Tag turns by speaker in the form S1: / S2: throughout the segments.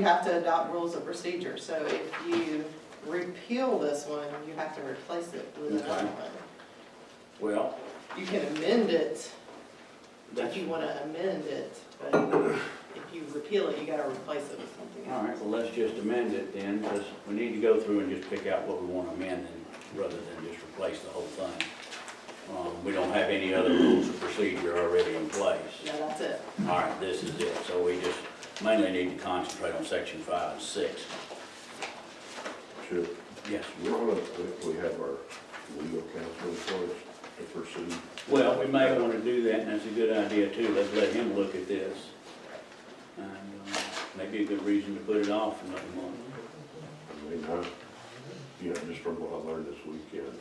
S1: You have to adopt rules of procedure, so if you repeal this one, you have to replace it with another
S2: Okay.
S1: one.
S2: Well,
S1: You can amend it if
S2: that's,
S1: you
S2: all
S1: want to amend it, but if you repeal it, you got to replace it with something else.
S2: right, well, let's just amend it then, because we need to go through and just pick out what we want to amend and, rather than just replace the whole thing. Um, we don't have any other rules of procedure already in place.
S1: No, that's it.
S2: All right, this is it, so we just mainly need to concentrate on section five and six.
S3: Should,
S2: Yes,
S3: we want to, if we have our legal counsel in place to pursue,
S2: well, we may want to do that, and that's a good idea too, let's let him look at this. And, um, maybe a good reason to put it off another month.
S3: I mean, I, you know, just from what I learned this weekend,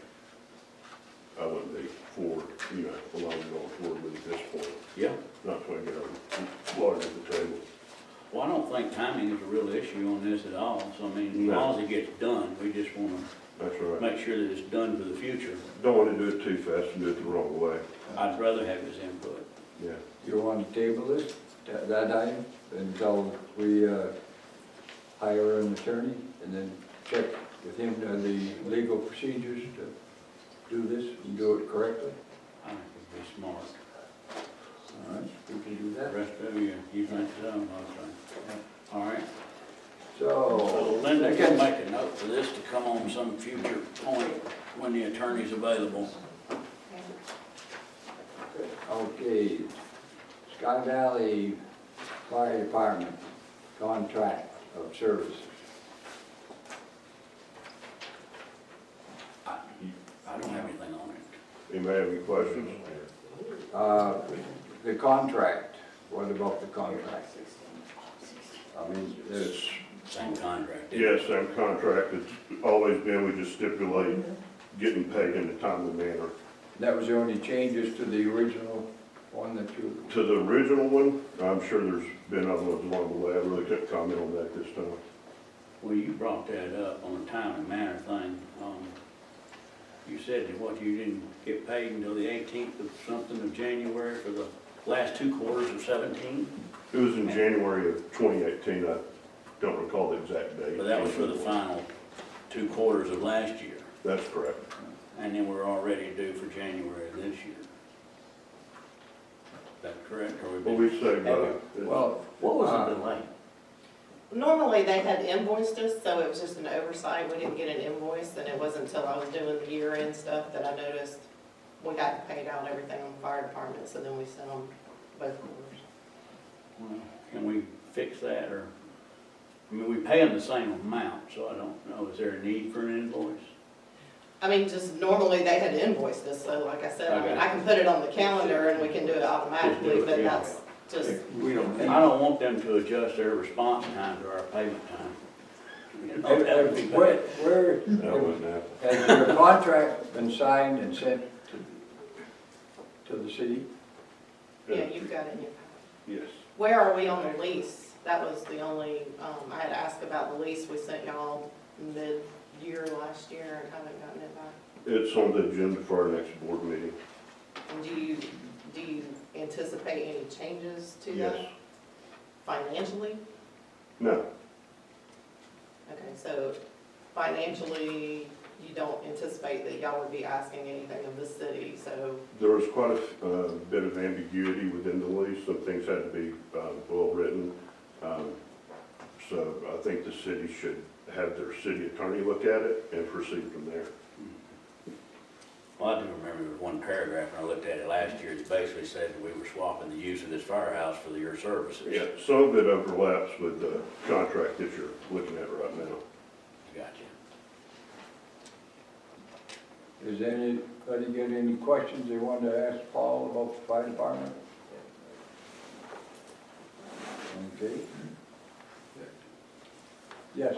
S3: I wouldn't be forward, you know, allowing it all forward with at this point,
S2: Yeah,
S3: not trying to get our lawyer at the table.
S2: Well, I don't think timing is a real issue on this at all, so I mean, as long as it gets done, we just wanna
S3: That's all right.
S2: make sure that it's done for the future.
S3: Don't want to do it too fast and do it the wrong way,
S2: I'd rather have his input.
S3: yeah.
S4: You want to table it, tha- that item, until we uh, hire an attorney, and then check with him on the legal procedures to do this and do it correctly?
S2: I think it'd be smart.
S4: All right, we can do
S2: The
S4: that.
S2: rest of you, you think so, okay. All right, so
S4: So,
S2: Linda can
S4: second,
S2: make a note for this to come on some future point when the attorney's available.
S4: okay, Sky Valley Fire Department contract of services.
S2: I, I don't have anything on it.
S3: Anybody have any questions?
S4: Uh, The contract, what about the contract? I mean,
S3: It's,
S2: Same contract. isn't it?
S3: yes, same contract, it's always been, we just stipulate getting paid in a timely manner.
S4: That was the only changes to the original one that you,
S3: To the original one, I'm sure there's been other ones along the way, I really couldn't comment on that this time.
S2: Well, you brought that up on the time and manner thing. Um, You said that what, you didn't get paid until the eighteenth of something of January for the last two quarters of seventeen?
S3: It was in January of twenty eighteen, I don't recall the exact date.
S2: But that was for the final two quarters of last year.
S3: That's correct.
S2: And then we're already due for January of this year. Is that correct? Or
S3: What
S2: we
S3: we
S2: been?
S3: say, uh, it's-
S4: well,
S2: What
S4: was the
S2: delay?
S1: Normally, they had invoiced us, so it was just an oversight. We didn't get an invoice, and it wasn't until I was doing the year-end stuff that I noticed we got paid out everything on the fire department, so then we sent them both orders.
S2: Can we fix that or, I mean, we pay them the same amount, so I don't know, is there a need for an invoice?
S1: I mean, just normally they had invoiced us, so like I said, I mean,
S2: Okay.
S1: I can put it on the calendar and we can do it automatically,
S2: Just do it,
S1: but
S2: yeah.
S1: that's just,
S4: Uh, we don't
S2: I
S4: need.
S2: don't want them to adjust their response time to our payment time. You know, that would be
S4: Where,
S2: bad.
S4: where,
S3: that wasn't that.
S4: has your contract been signed and sent to, to the city?
S1: yeah, you've got it in your.
S3: Yes.
S1: Where are we on the lease? That was the only, um, I had asked about the lease we sent y'all mid-year last year and haven't gotten it back.
S3: It's on the agenda for our next board meeting.
S1: And do you, do you anticipate any changes to
S3: Yes.
S1: that financially?
S3: No,
S1: Okay, so financially, you don't anticipate that y'all would be asking anything of the city, so
S3: there was quite a f- uh, bit of ambiguity within the lease, some things had to be um, well-written. Um, So I think the city should have their city attorney look at it and proceed from there.
S2: Well, I do remember there was one paragraph, and I looked at it last year, that basically said that we were swapping the use of this firehouse for your services.
S3: Yeah, some of it overlaps with the contract that you're looking at right now.
S2: Gotcha.
S4: Is anybody got any questions they want to ask Paul about the fire department? Okay. Yes,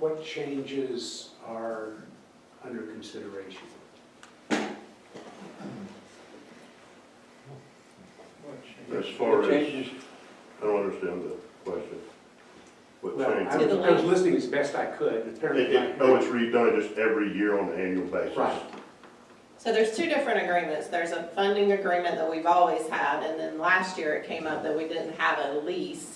S5: What changes are under consideration?
S3: As far
S4: The
S3: as,
S4: changes-
S3: I don't understand the question. What
S5: Well, I
S3: changes?
S1: To the
S5: was- I was
S1: lake.
S5: listening as best I could, and
S3: It-
S5: apparently.
S3: it-
S5: my-
S3: Oh, it's redone just every year on an annual basis.
S5: Right.
S1: So there's two different agreements. There's a funding agreement that we've always had, and then last year it came up that we didn't have a lease.